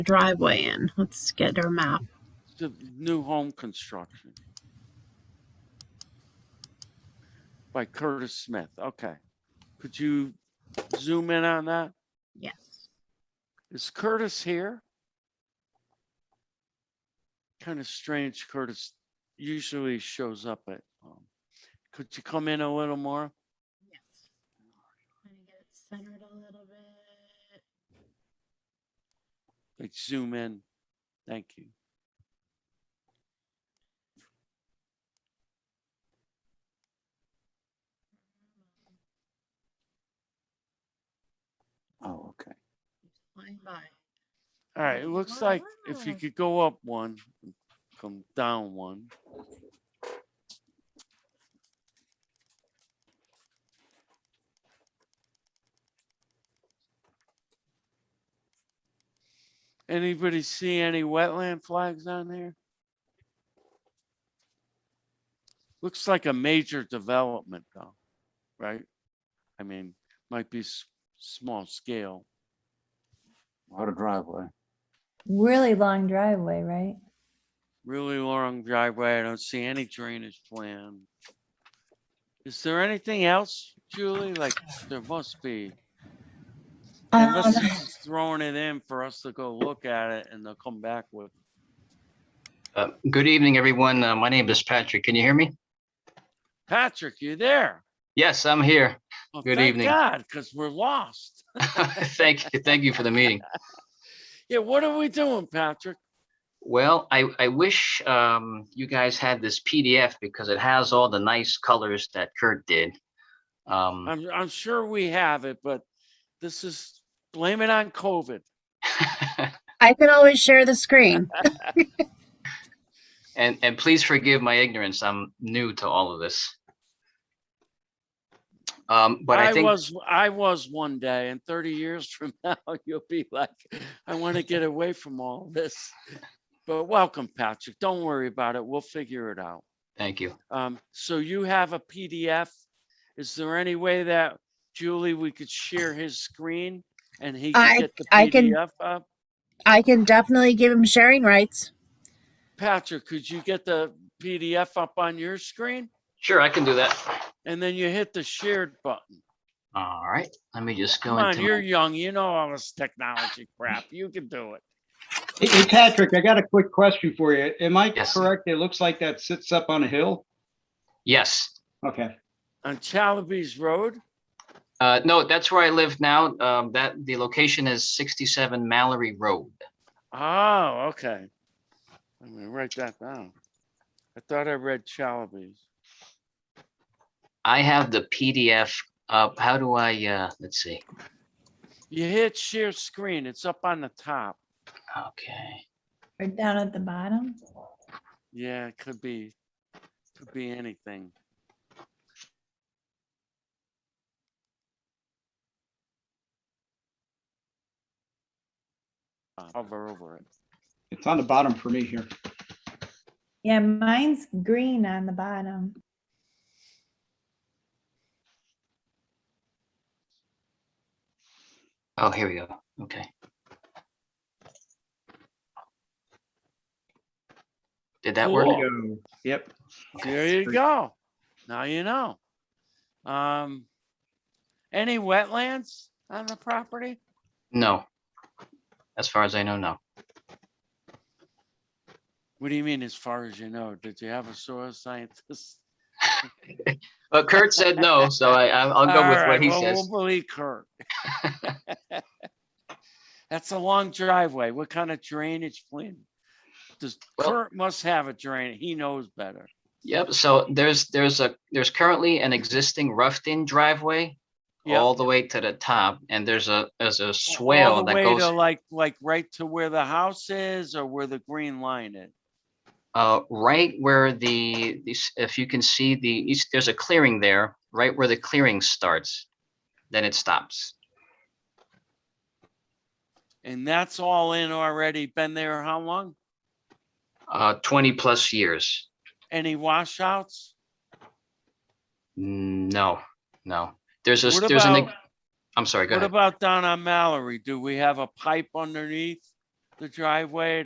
driveway in. Let's get our map. The new home construction. By Curtis Smith. Okay. Could you zoom in on that? Yes. Is Curtis here? Kind of strange Curtis usually shows up at, um, could you come in a little more? Yes. Trying to get it centered a little bit. Like zoom in. Thank you. Oh, okay. Keeps flying by. All right, it looks like if you Wow. could go up one, and come down one. Anybody see any wetland flags on there? Looks like a major development though, right? I mean, might be s- small scale. A lot of driveway. Really long driveway, right? Really long driveway. I don't see any drainage plan. Is there anything else, Julie? Like, there must be. Unless Um, it's throwing it in for us to go look at it and they'll come back with, Uh, Good evening, everyone. Uh, My name is Patrick. Can you hear me? Patrick, you there? Yes, I'm here. Well, Good thank evening. God, because we're lost. Thank you, thank you for the meeting. Yeah, what are we doing, Patrick? Well, I, I wish um, you guys had this PDF because it has all the nice colors that Kurt did. Um, I'm, I'm sure we have it, but this is, blame it on COVID. I can always share the screen. And, and please forgive my ignorance. I'm new to all of this. Um, But I I think, was, I was one day and thirty years from now, you'll be like, I want to get away from all this. But welcome, Patrick. Don't worry about it. We'll figure it out. thank you. Um, so you have a PDF. Is there any way that Julie, we could share his screen and he I- can get the I can- PDF up? I can definitely give him sharing rights. Patrick, could you get the PDF up on your screen? Sure, I can do that. And then you hit the shared button. All right, let me just go Come on, into. you're my- young. You know all this technology crap. You can do it. Hey, hey, Patrick, I got a quick question for you. Am I Yes. correct? It looks like that sits up on a hill? Yes. Okay. On Chalabes Road? Uh, no, that's where I live now. Um, that the location is sixty-seven Mallory Road. Oh, okay. I'm gonna write that down. I thought I read Chalabes. I have the PDF. up. how do I, uh, let's see. You hit share screen, it's up on the top. Okay. Or down at the bottom? Yeah, it could be, could be anything. Uh, Hover over it. It's on the bottom for me here. Yeah, mine's green on the bottom. Oh, here we go. Okay. Did that work? Cool. Yo. Yep. There you go. Now you know. Um, any wetlands on the property? No. As far as I know, no. What do you mean, as far as you know? Did you have a soil scientist? But Kurt said no, so I, I'll I'll go with All what right, he well, says. We'll believe Kurt. That's a long driveway. What kind of drainage plan? Does Well- Kurt must have a drain? He knows better. Yep, so there's, there's a, there's currently an existing roughed-in driveway Yeah, all the way to the top, and there's a, there's a all swale the that way goes. to Like, like right to where the house is or where the green line is. Uh, right where the, this- if you can see the, east- there's a clearing there, right where the clearing starts, then it stops. And that's all in already. Been there how long? Uh, twenty plus years. Any washouts? No, no. There's a, What there's an, about- I'm sorry, go What ahead. about down on Mallory? Do we have a pipe underneath? the driveway